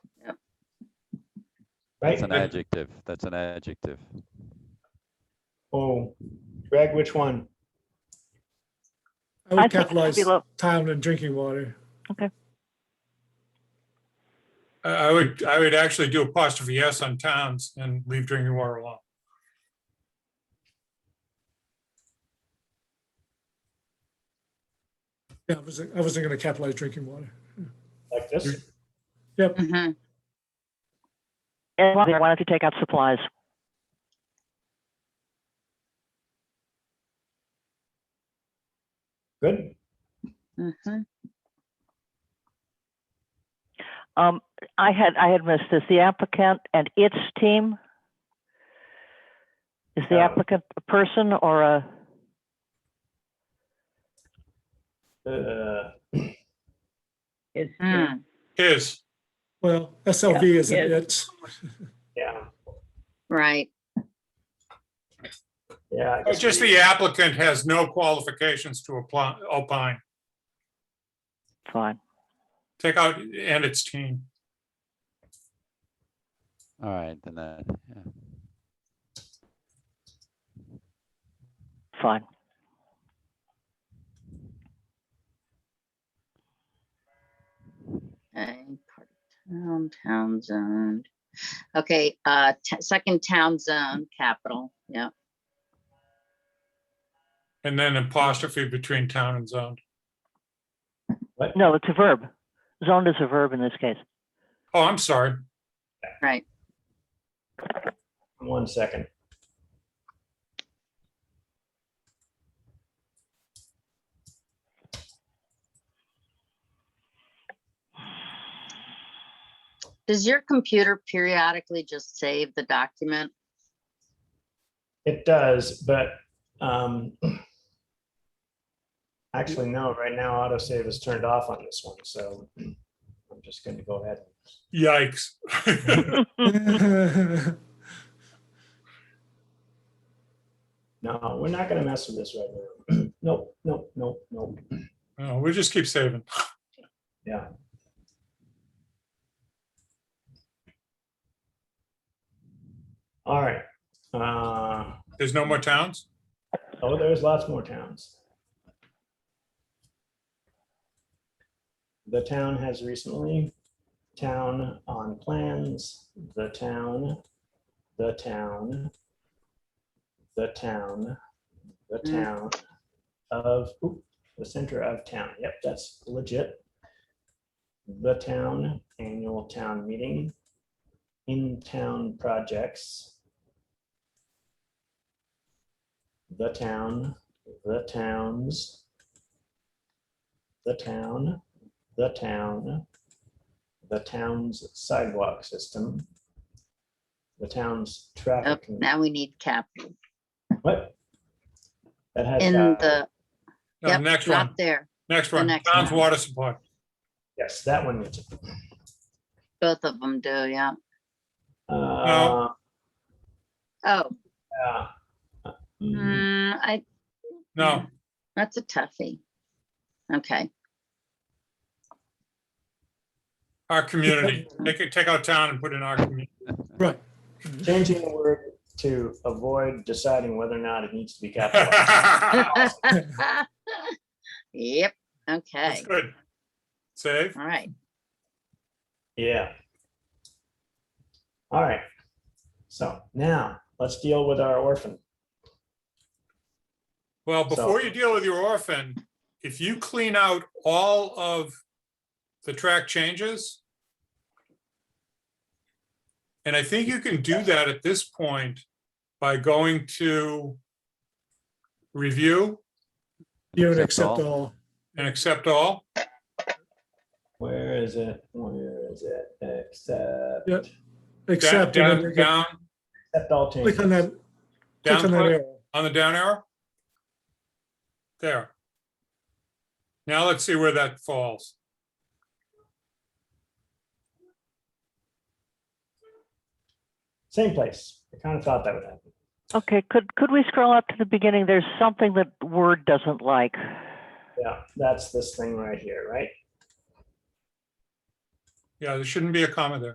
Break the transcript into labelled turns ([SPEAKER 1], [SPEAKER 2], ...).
[SPEAKER 1] right?
[SPEAKER 2] That's an
[SPEAKER 1] Greg?
[SPEAKER 2] adjective. That's an adjective.
[SPEAKER 1] Oh, Greg, which one?
[SPEAKER 3] I
[SPEAKER 4] I
[SPEAKER 3] would
[SPEAKER 4] think it should
[SPEAKER 3] capitalize
[SPEAKER 4] be low.
[SPEAKER 3] town and drinking water.
[SPEAKER 5] I, I would, I would actually do apostrophe S on towns and leave drinking water alone.
[SPEAKER 3] Yeah, I wasn't, I wasn't going to capitalize drinking water.
[SPEAKER 1] Like this?
[SPEAKER 3] Yep.
[SPEAKER 6] Mhm.
[SPEAKER 4] And why why don't you take out supplies?
[SPEAKER 1] Good.
[SPEAKER 6] Mhm.
[SPEAKER 4] Um, I had, I had missed this. The applicant and its team? Is the
[SPEAKER 1] Uh,
[SPEAKER 4] applicant a person or a,
[SPEAKER 1] Uh,
[SPEAKER 7] It's, yeah.
[SPEAKER 6] Mm.
[SPEAKER 5] Is,
[SPEAKER 3] Well, SLV is
[SPEAKER 7] Yeah,
[SPEAKER 3] an
[SPEAKER 7] yeah.
[SPEAKER 3] it.
[SPEAKER 1] Yeah,
[SPEAKER 6] Right.
[SPEAKER 1] yeah. I
[SPEAKER 5] oh,
[SPEAKER 1] guess
[SPEAKER 5] just
[SPEAKER 1] we-
[SPEAKER 5] the applicant has no qualifications to apply, opine.
[SPEAKER 4] fine,
[SPEAKER 5] Take out and its team.
[SPEAKER 2] All right, then that, yeah.
[SPEAKER 4] fine.
[SPEAKER 6] Okay, part of Town, town zone. Okay, uh, t- second town zone, capital, yeah.
[SPEAKER 5] And then apostrophe between town and zone.
[SPEAKER 1] What?
[SPEAKER 4] No, it's a verb. Zoned is a verb in this case.
[SPEAKER 5] Oh, I'm sorry.
[SPEAKER 6] Right,
[SPEAKER 1] One second.
[SPEAKER 6] does your computer periodically just save the document?
[SPEAKER 1] It does, but, um, actually, no, right now autosave is turned off on this one, so I'm just going to go ahead.
[SPEAKER 5] Yikes.
[SPEAKER 1] No, we're not going to mess with this right now. Nope, nope, nope, nope.
[SPEAKER 5] No, We just keep saving.
[SPEAKER 1] Yeah. All right. Uh,
[SPEAKER 5] There's no more towns?
[SPEAKER 1] oh, there's lots more towns. The town has recently, town on plans, the town, the town, the town, the
[SPEAKER 6] Mm.
[SPEAKER 1] town of, oop, the center of town. Yep, that's legit the town annual town meeting, in-town projects, the town, the towns, the town, the town, the town's sidewalk system, the town's
[SPEAKER 6] Oh,
[SPEAKER 1] traffic.
[SPEAKER 6] now we need capital
[SPEAKER 1] What? That has.
[SPEAKER 6] in
[SPEAKER 1] uh,
[SPEAKER 6] the,
[SPEAKER 5] No,
[SPEAKER 6] yep,
[SPEAKER 5] Oh, Next
[SPEAKER 6] not
[SPEAKER 5] one,
[SPEAKER 6] there,
[SPEAKER 5] next
[SPEAKER 6] the
[SPEAKER 5] one,
[SPEAKER 6] next
[SPEAKER 5] town's
[SPEAKER 6] one.
[SPEAKER 5] water supply.
[SPEAKER 1] Yes, that one. needs it.
[SPEAKER 6] both of them do, yeah.
[SPEAKER 1] Uh,
[SPEAKER 6] Oh,
[SPEAKER 1] yeah. Mm,
[SPEAKER 6] mm, I, Mm-hmm.
[SPEAKER 5] No,
[SPEAKER 6] that's a toughie. Okay,
[SPEAKER 5] our community. Take, take out town and put in our community.
[SPEAKER 3] Right.
[SPEAKER 6] Hmm.
[SPEAKER 1] Changing the word to avoid deciding whether or not it needs to be capitalized.
[SPEAKER 5] That's
[SPEAKER 6] yep, okay,
[SPEAKER 5] good. Save.
[SPEAKER 6] all right.
[SPEAKER 1] Yeah. All right. So now let's deal with our orphan.
[SPEAKER 5] Well,
[SPEAKER 1] So-
[SPEAKER 5] before you deal with your orphan, if you clean out all of the track changes, and I think you can do that at this point by going to review
[SPEAKER 3] You would
[SPEAKER 2] Accept
[SPEAKER 3] accept
[SPEAKER 2] all.
[SPEAKER 3] all.
[SPEAKER 5] and accept all.
[SPEAKER 1] Where is it? Where is it? Except,
[SPEAKER 3] Yep.
[SPEAKER 5] Down,
[SPEAKER 3] Accept. and then
[SPEAKER 5] down,
[SPEAKER 3] you can
[SPEAKER 5] down,
[SPEAKER 1] except all changes.
[SPEAKER 3] Click on that, click
[SPEAKER 5] down
[SPEAKER 3] on that
[SPEAKER 5] click
[SPEAKER 3] arrow.
[SPEAKER 5] on the down arrow. There. Now let's see where that falls.
[SPEAKER 1] Same place. I kind of thought that would happen.
[SPEAKER 4] Okay, could, could we scroll up to the beginning? There's something that Word doesn't like.
[SPEAKER 1] Yeah, that's this thing right here, right?
[SPEAKER 5] Yeah, there shouldn't be a comma there.